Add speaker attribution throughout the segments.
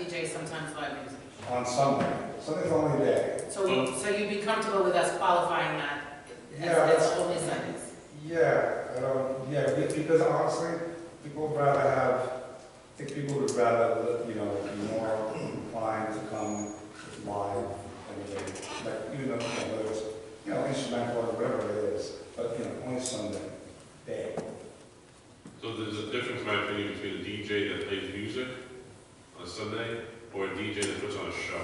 Speaker 1: insurance liability.
Speaker 2: on Sunday. Sunday's the only day.
Speaker 1: So, we- so you'd be comfortable with us qualifying that as,
Speaker 2: Yeah,
Speaker 1: as
Speaker 2: that's-
Speaker 1: only Sundays?
Speaker 2: Yeah, I don't, yeah, be- because honestly, people would rather have, I think people would rather, you know, be more inclined to come live than they, like, even though, you know, whether it's, you know, instrumental or whatever it is, but, you know, only Sunday day.
Speaker 3: So there's a difference, in my opinion, between a DJ that plays music on a Sunday or a DJ that puts on a show.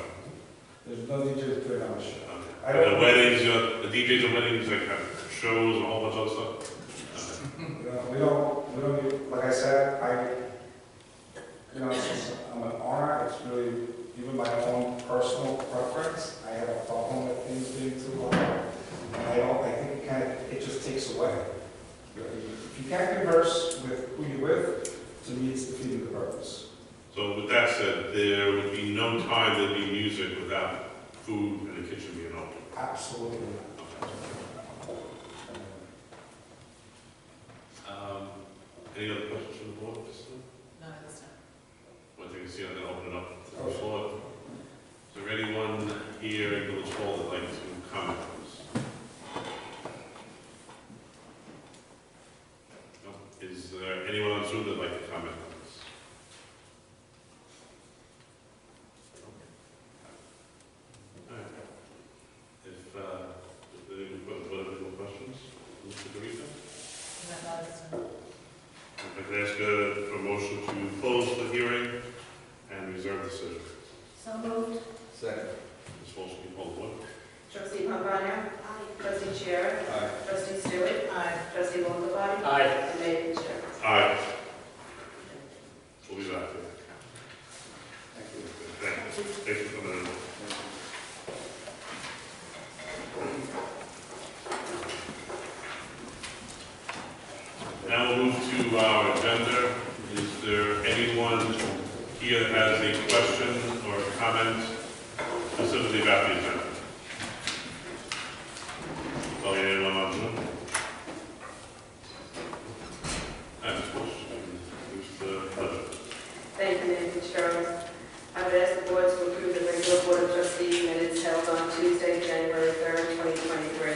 Speaker 2: There's no DJs putting on a show. I
Speaker 3: And the
Speaker 2: don't,
Speaker 3: weddings, uh, the DJs at weddings, like have shows and a whole bunch of other stuff.
Speaker 2: you know, we don't, we don't, do- like I said, I, you know, since I'm an owner, it's really, even my own personal preference, I have a problem with things being too loud. And I don't, I think it kind of, it just takes away. If you can't converse with who you're with, to me, it's defeating the purpose.
Speaker 3: So with that said, there would be no time there'd be music without food and the kitchen being open.
Speaker 2: Absolutely not.
Speaker 3: Um, Any other questions from the board? Kristen?
Speaker 1: Not at this time.
Speaker 3: One thing to see, I'm gonna open it up to the floor. Is there anyone here in Village Hall that'd like to comment on this? No? Is there anyone on Zoom that'd like to comment on this? All right. If, uh, if there any political questions, Mr. Garita?
Speaker 1: Not at this time.
Speaker 3: If I could ask uh, for a motion to close the hearing and reserve the decision.
Speaker 1: So moved.
Speaker 4: Second.
Speaker 3: Ms. Walsh, can you poll the board?
Speaker 5: Trustee Pambana? Aye. Trustee Chair?
Speaker 4: Aye.
Speaker 5: Trustee Stewart? Aye. Trustee Longbody?
Speaker 1: Aye.
Speaker 5: And Mayor Fitzgerald.
Speaker 3: Aye. We'll be back. Thank you. Thank you for coming in. Now we'll move to our agenda. Is there anyone here that has a question or comment specifically about the agenda? Oh, yeah, anyone on Zoom? I have a question. Who's the uh, pleasure?
Speaker 5: Thank you, Mayor Fitzgerald. I would ask the board to approve the regular board of trustees minutes held on Tuesday, January 3rd, 2023.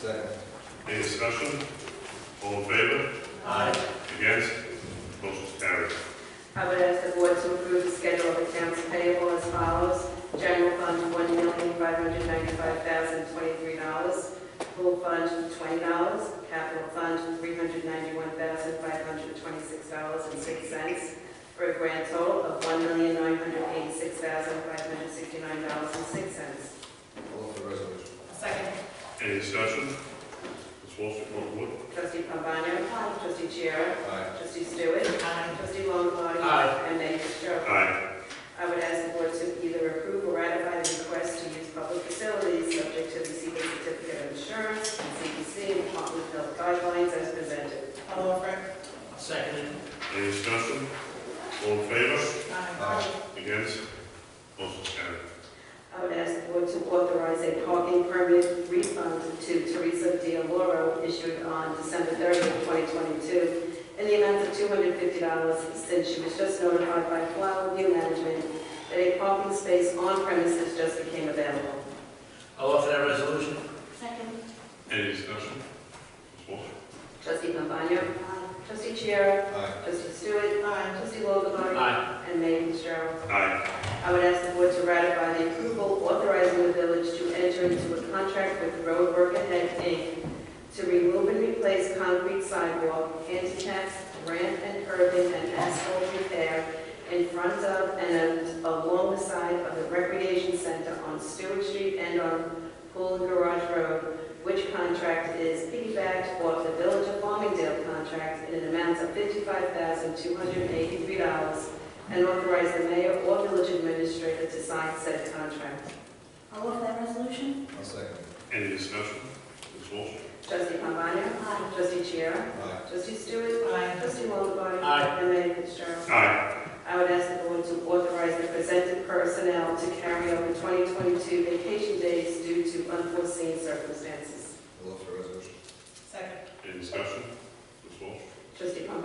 Speaker 4: Second.
Speaker 3: Any discussion? All in favor?
Speaker 1: Aye.
Speaker 3: Against? Motion carries.
Speaker 5: I would ask the board to approve the schedule of accounts payable as follows. General fund, $1,595,023. Pool fund, $20. Capital fund, $391,526.06. For a grand total of $1,986,569.06.
Speaker 4: All for resolution.
Speaker 1: Second.
Speaker 3: Any discussion? Ms. Walsh, you call the board.
Speaker 5: Trustee Pambana? Aye. Trustee Chair?
Speaker 4: Aye.
Speaker 5: Trustee Stewart?
Speaker 1: Aye.
Speaker 5: Trustee Longbody?
Speaker 1: Aye.
Speaker 5: And Mayor Fitzgerald.
Speaker 3: Aye.
Speaker 5: I would ask the board to either approve or ratify the request to use public facilities subject to receiving certificate of insurance, CPC, and Department of Health guidelines as presented.
Speaker 1: All over. Second.
Speaker 3: Any discussion? All in favor?
Speaker 1: Aye.
Speaker 4: Aye.
Speaker 3: Against? Motion carries.
Speaker 5: I would ask the board to authorize a parking permit refund to Teresa Dialoro issued on December 30th, 2022, in the amount of $250 since she was just notified by Flower View Management that a parking space on premises just became available.
Speaker 6: I'll offer that resolution.
Speaker 5: Second.
Speaker 3: Any discussion? Ms. Walsh?
Speaker 5: Trustee Pambana? Aye. Trustee Chair?
Speaker 4: Aye.
Speaker 5: Trustee Stewart. Aye. Trustee Longbody.
Speaker 6: Aye.
Speaker 5: And Mayor Fitzgerald.
Speaker 3: Aye.
Speaker 5: I would ask the board to ratify the approval authorizing the village to enter into a contract with Roadwork Ahead Inc. to remove and replace concrete sidewalk, handicap, ramp and curbing, and asphalt repair in front of and along the side of the recreation center on Stewart Street and on Pool and Garage Road, which contract is piggybacked off the Village of Farmingdale contract in an amount of $55,283 and authorize the mayor or village administrator to sign said contract.
Speaker 7: I'll offer that resolution.
Speaker 4: I'll second.
Speaker 3: Any discussion? Ms. Walsh?
Speaker 5: Trustee Pambana?
Speaker 7: Aye.
Speaker 5: Trustee Chair?
Speaker 4: Aye.
Speaker 5: Trustee Stewart? Aye. Trustee Longbody?
Speaker 6: Aye.
Speaker 5: And Mayor Fitzgerald?
Speaker 3: Aye.
Speaker 5: I would ask the board to authorize the presented personnel to carry over 2022 vacation days due to unforeseen circumstances.
Speaker 4: All for resolution.
Speaker 1: Second.
Speaker 3: Any discussion? Ms. Walsh?
Speaker 5: Trustee Pambana?